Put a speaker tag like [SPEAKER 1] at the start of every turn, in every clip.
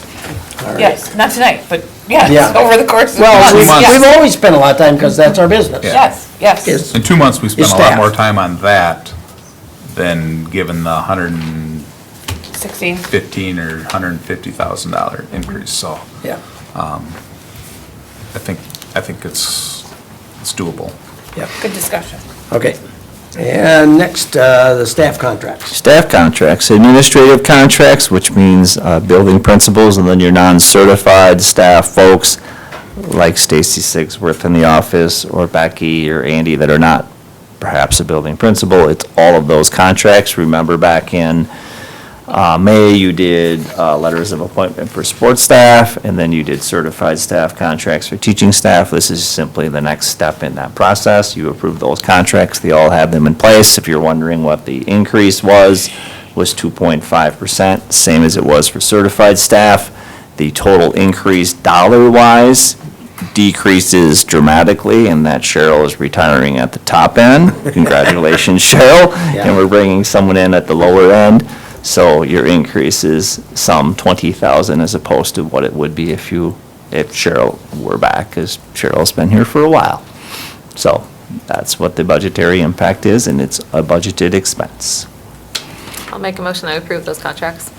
[SPEAKER 1] all right.
[SPEAKER 2] Yes, not tonight, but yes,
[SPEAKER 1] Yeah.
[SPEAKER 2] over the course of
[SPEAKER 1] Well,
[SPEAKER 2] months.
[SPEAKER 1] we've,
[SPEAKER 3] Months.
[SPEAKER 1] we've
[SPEAKER 2] yes.
[SPEAKER 1] always spent a lot of time because that's our business.
[SPEAKER 3] Yeah.
[SPEAKER 2] Yes, yes.
[SPEAKER 1] Yes.
[SPEAKER 3] In two months, we spent
[SPEAKER 1] Is
[SPEAKER 3] a lot
[SPEAKER 1] staff.
[SPEAKER 3] more time on that than given the hundred and
[SPEAKER 2] 16.
[SPEAKER 3] fifteen or hundred and fifty thousand dollar increase, so
[SPEAKER 1] Yeah,
[SPEAKER 3] I think, I think it's, it's doable.
[SPEAKER 1] yeah,
[SPEAKER 2] Good discussion.
[SPEAKER 1] okay. And next, uh, the staff contracts.
[SPEAKER 4] Staff contracts, administrative contracts, which means uh, building principals, and then your non-certified staff folks, like Stacy Sigsworth in the office, or Becky or Andy, that are not perhaps a building principal. It's all of those contracts. Remember back in uh, May, you did uh, letters of appointment for sports staff, and then you did certified staff contracts for teaching staff. This is simply the next step in that process. You approve those contracts, they all have them in place. If you're wondering what the increase was, was 2.5%, same as it was for certified staff. The total increase dollar-wise decreases dramatically, and that Cheryl is retiring at the top end. Congratulations, Cheryl.
[SPEAKER 1] Yeah.
[SPEAKER 4] And we're bringing someone in at the lower end. So your increase is some 20,000 as opposed to what it would be if you, if Cheryl were back, because Cheryl's been here for a while. So that's what the budgetary impact is, and it's a budgeted expense.
[SPEAKER 5] I'll make a motion to approve those contracts.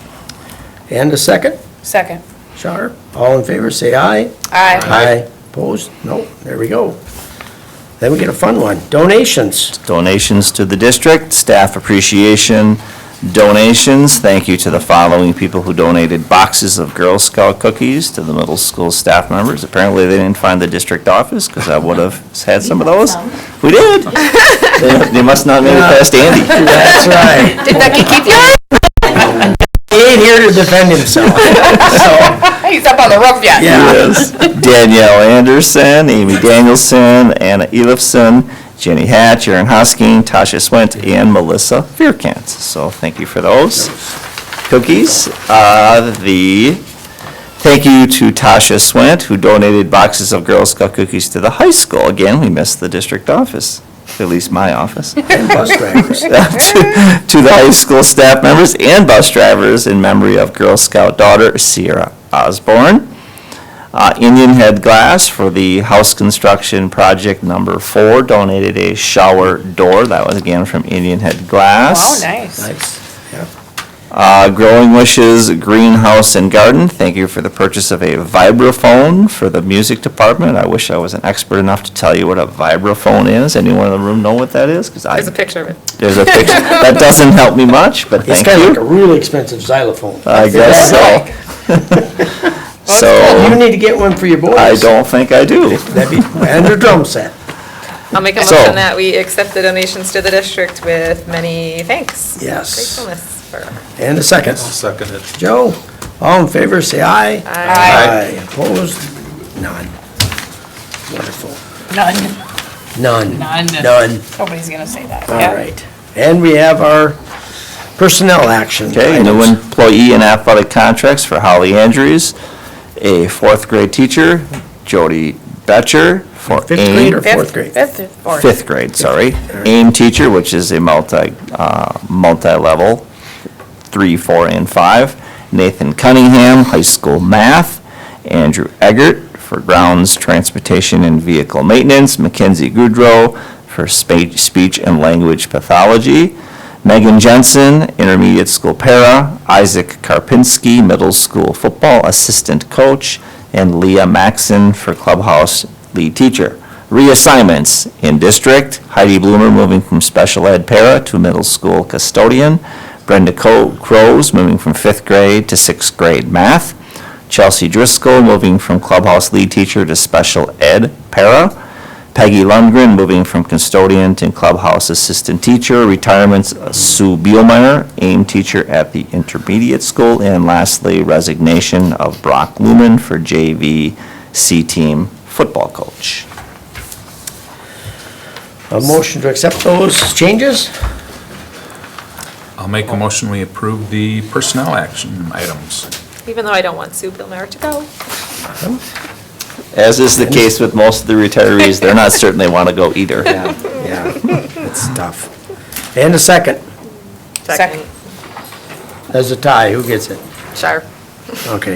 [SPEAKER 1] And a second,
[SPEAKER 2] Second.
[SPEAKER 1] Shar, all in favor, say aye.
[SPEAKER 2] Aye.
[SPEAKER 1] Opposed? No, there we go. Then we get a fun one, donations.
[SPEAKER 4] donations to the district, staff appreciation donations. Thank you to the following people who donated boxes of Girl Scout cookies to the middle school staff members. Apparently, they didn't find the district office, because I would have had some of those. We did. They- They must not have made it past Andy.
[SPEAKER 1] That's right.
[SPEAKER 5] Did Becky keep yours?
[SPEAKER 1] He ain't here to defend himself, so,
[SPEAKER 2] He's up on the roof yet.
[SPEAKER 1] yeah.
[SPEAKER 4] Yes. Danielle Anderson, Amy Danielson, Anna Elifson, Jenny Hatch, Erin Hosking, Tasha Swint, and Melissa Fearkant. So thank you for those cookies. Uh, The, thank you to Tasha Swint, who donated boxes of Girl Scout cookies to the high school. Again, we missed the district office, at least my office
[SPEAKER 1] And bus drivers.
[SPEAKER 4] to the high school staff members and bus drivers in memory of Girl Scout daughter Sierra Osborne. Uh, Indian Head Glass for the house construction project number four donated a shower door. That was again from Indian Head
[SPEAKER 2] Oh,
[SPEAKER 4] Glass.
[SPEAKER 2] nice.
[SPEAKER 1] Nice, yeah.
[SPEAKER 4] Uh, Growing Wishes Greenhouse and Garden, thank you for the purchase of a vibraphone for the music department. I wish I was an expert enough to tell you what a vibraphone is. Anyone in the room know what that is? Because I,
[SPEAKER 5] There's a picture of it.
[SPEAKER 4] there's a picture. That doesn't help me much,
[SPEAKER 1] It's
[SPEAKER 4] but thank you.
[SPEAKER 1] kind of like a really expensive xylophone.
[SPEAKER 4] I guess so.
[SPEAKER 1] You
[SPEAKER 4] So,
[SPEAKER 1] need to get one for your boys.
[SPEAKER 4] I don't think I do.
[SPEAKER 1] That'd be, and your drum set.
[SPEAKER 5] I'll make a
[SPEAKER 4] So-
[SPEAKER 5] motion that we accept the donations to the district with many thanks.
[SPEAKER 1] Yes.
[SPEAKER 5] Gratefulness for. uh,
[SPEAKER 1] And a second.
[SPEAKER 3] Second it.
[SPEAKER 1] Joe, all in favor, say aye.
[SPEAKER 5] Aye.
[SPEAKER 1] Opposed? None. Wonderful.
[SPEAKER 2] None.
[SPEAKER 1] None.
[SPEAKER 2] None.
[SPEAKER 1] None.
[SPEAKER 2] Nobody's going to say that.
[SPEAKER 1] All
[SPEAKER 2] Yeah.
[SPEAKER 1] right. And we have our personnel action.
[SPEAKER 4] Okay, new
[SPEAKER 1] items.
[SPEAKER 4] employee and athletic contracts for Holly Andrews, a fourth grade teacher, Jody Betcher for
[SPEAKER 1] Fifth
[SPEAKER 4] AIM-
[SPEAKER 1] grade or
[SPEAKER 2] Fifth-
[SPEAKER 1] fourth grade?
[SPEAKER 2] Fifth or fourth?
[SPEAKER 4] Fifth grade, sorry. AIM teacher, which is a multi, uh, multi-level, three, four, and five. Nathan Cunningham, high school math. Andrew Eggert for grounds, transportation, and vehicle maintenance. Mackenzie Goodrow for spa- speech and language pathology. Megan Jensen, intermediate school para. Isaac Karpinski, middle school football assistant coach. And Leah Maxon for clubhouse lead teacher. Reassignments in district, Heidi Bloomer moving from special ed para to middle school custodian, Brenda Co- Crows moving from fifth grade to sixth grade math, Chelsea Driscoll moving from clubhouse lead teacher to special ed para, Peggy Lundgren moving from custodian to clubhouse assistant teacher, retirements Sue Bielmeyer, AIM teacher at the intermediate school, and lastly, resignation of Brock Lumen for JV C-team football coach.
[SPEAKER 1] A motion to accept those changes?
[SPEAKER 3] I'll make a motion, we approve the personnel action items.
[SPEAKER 5] Even though I don't want Sue Billmeyer to go.
[SPEAKER 4] As is the case with most of the retirees, they're not certain they want to go either.
[SPEAKER 1] Yeah, yeah, it's tough. And a second.
[SPEAKER 2] Second.
[SPEAKER 5] Second.
[SPEAKER 1] There's a tie. Who gets it?
[SPEAKER 5] Sharp.
[SPEAKER 1] Okay.